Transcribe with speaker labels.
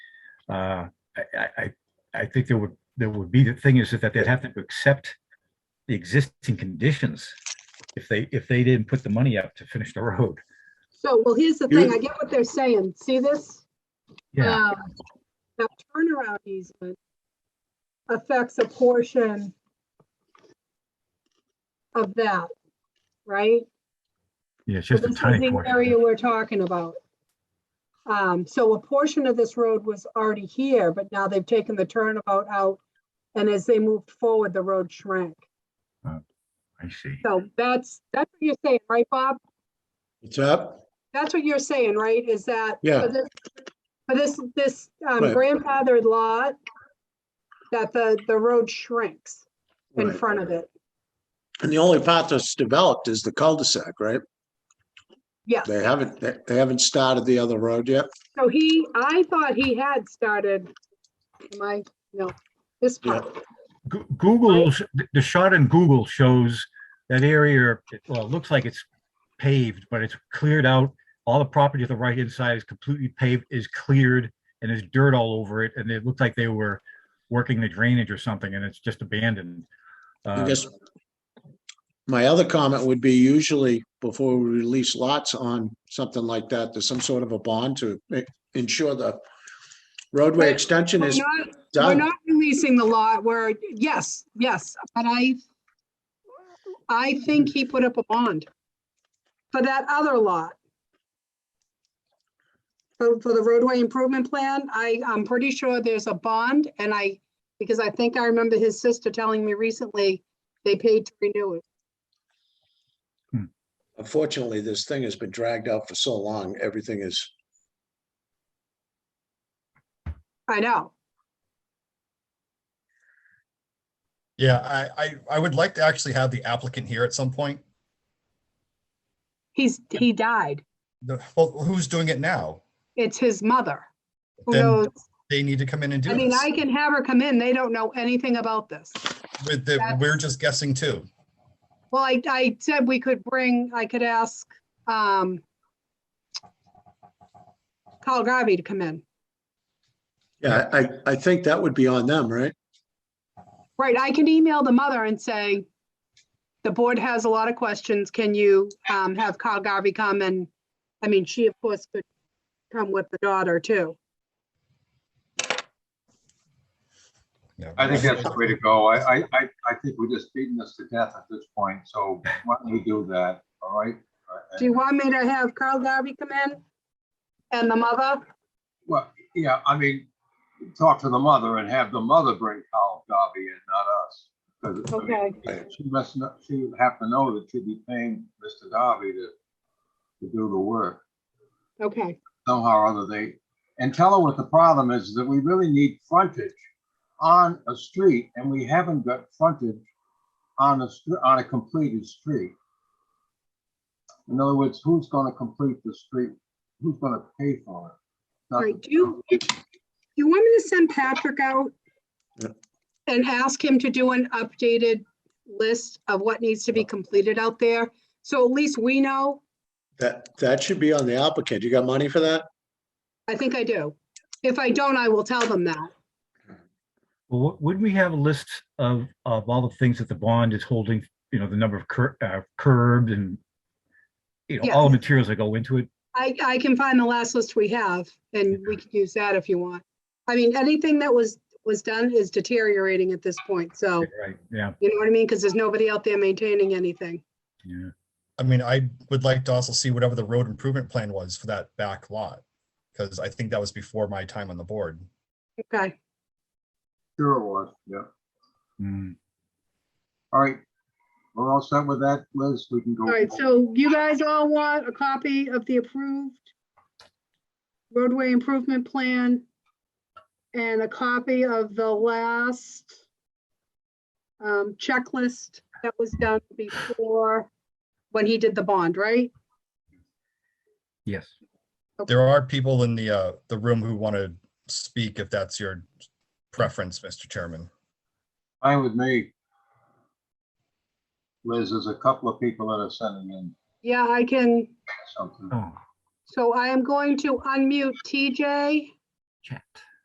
Speaker 1: Uh, I, I, I- I think there would, there would be, the thing is that they'd have to accept the existing conditions if they, if they didn't put the money up to finish the road.
Speaker 2: So, well, here's the
Speaker 3: You-
Speaker 2: thing, I get what they're saying. See this? Um, That turnaround easement affects a portion of that, right?
Speaker 1: Yeah, it's
Speaker 2: So
Speaker 1: just a
Speaker 2: This is
Speaker 1: tiny
Speaker 2: the
Speaker 1: portion.
Speaker 2: area we're talking about. Um, so a portion of this road was already here, but now they've taken the turnabout out. And as they moved forward, the road shrank.
Speaker 1: I see.
Speaker 2: So that's, that's what you're saying, right, Bob?
Speaker 3: What's up?
Speaker 2: That's what you're saying, right? Is that?
Speaker 3: Yeah.
Speaker 2: for this- For this, this um,
Speaker 3: Right.
Speaker 2: grandfathered lot, that the, the road shrinks in
Speaker 3: Right.
Speaker 2: front of it.
Speaker 3: And the only part that's developed is the cul-de-sac, right?
Speaker 2: Yeah.
Speaker 3: They haven't, they they haven't started the other road yet.
Speaker 2: So he, I thought he had started, am I, no, this
Speaker 3: Yeah.
Speaker 2: part.
Speaker 1: Goo- Google's, th- the shot in Google shows that area, it- well, it looks like it's paved, but it's cleared out. All the property to the right-hand side is completely paved, is cleared, and there's dirt all over it, and it looked like they were working the drainage or something, and it's just abandoned.
Speaker 3: I
Speaker 1: Uh,
Speaker 3: guess my other comment would be usually before we release lots on something like that, there's some sort of a bond to ma- ensure the roadway
Speaker 2: Right.
Speaker 3: extension
Speaker 2: We're
Speaker 3: is
Speaker 2: not, we're
Speaker 3: done.
Speaker 2: not releasing the lot where, yes, yes, but I, I think he put up a bond for that other lot. For, for the roadway improvement plan, I, I'm pretty sure there's a bond and I, because I think I remember his sister telling me recently, they paid to renew it.
Speaker 3: Unfortunately, this thing has been dragged out for so long, everything is,
Speaker 2: I know.
Speaker 4: Yeah, I, I, I would like to actually have the applicant here at some point.
Speaker 2: He's, he died.
Speaker 4: The, well, who's doing it now?
Speaker 2: It's his mother. Who
Speaker 4: Then-
Speaker 2: knows?
Speaker 4: They need to come in and do
Speaker 2: I mean,
Speaker 4: this.
Speaker 2: I can have her come in. They don't know anything about this.
Speaker 4: With the, we're just guessing too.
Speaker 2: Well, I, I said we could bring, I could ask, um, Carl Garvey to come in.
Speaker 3: yeah, I, I think that would be on them, right?
Speaker 2: Right, I can email the mother and say, the board has a lot of questions. Can you, um, have Carl Garvey come and, I mean, she of course could come with the daughter too.
Speaker 4: Yeah.
Speaker 5: I think that's the way to go. I, I, I, I think we're just beating this to death at this point, so why don't we do that, all right? Uh,
Speaker 2: Do you want me to have Carl Garvey come in? And the mother?
Speaker 5: Well, yeah, I mean, talk to the mother and have the mother bring Carl Darby in, not us. 'Cause, I mean,
Speaker 2: Okay,
Speaker 5: She must, kno- she would have to know that she'd be paying Mr. Darby to, to do the work
Speaker 2: okay,
Speaker 5: somehow or other. They, and tell her what the problem is, that we really need frontage on a street, and we haven't got frontage on a, str- on a completed street. In other words, who's gonna complete the street? Who's gonna pay for it? Not
Speaker 2: all
Speaker 5: the
Speaker 2: right. Do you, you want me to send Patrick out?
Speaker 3: Yeah.
Speaker 2: And ask him to do an updated list of what needs to be completed out there? So at least we know,
Speaker 3: That, that should be on the applicant. You got money for that?
Speaker 2: I think I do. If I don't, I will tell them that.
Speaker 1: Well, wou- wouldn't we have a list of, of all the things that the bond is holding, you know, the number of cur- uh, curbs and, you know, all the materials that go into it?
Speaker 2: I, I can find the last list we have and we can use that if you want. I mean, anything that was, was done is deteriorating at this point, so,
Speaker 1: Right, yeah,
Speaker 2: you know what I mean? Because there's nobody out there maintaining anything.
Speaker 1: yeah.
Speaker 4: I mean, I would like to also see whatever the road improvement plan was for that back lot. Cause I think that was before my time on the board.
Speaker 2: Okay,
Speaker 5: Sure it was, yeah.
Speaker 1: Mm.
Speaker 5: All right. We're all set with that, Liz? We can go.
Speaker 2: all right, so you guys all want a copy of the approved roadway improvement plan and a copy of the last um, checklist that was done before, when he did the bond, right?
Speaker 1: Yes.
Speaker 4: There are people in the, uh, the room who want to speak if that's your preference, Mr. Chairman.
Speaker 5: Fine with me. Liz, there's a couple of people that are sending in
Speaker 2: Yeah, I can.
Speaker 5: something.
Speaker 1: Oh,
Speaker 2: So I am going to unmute TJ
Speaker 1: chat.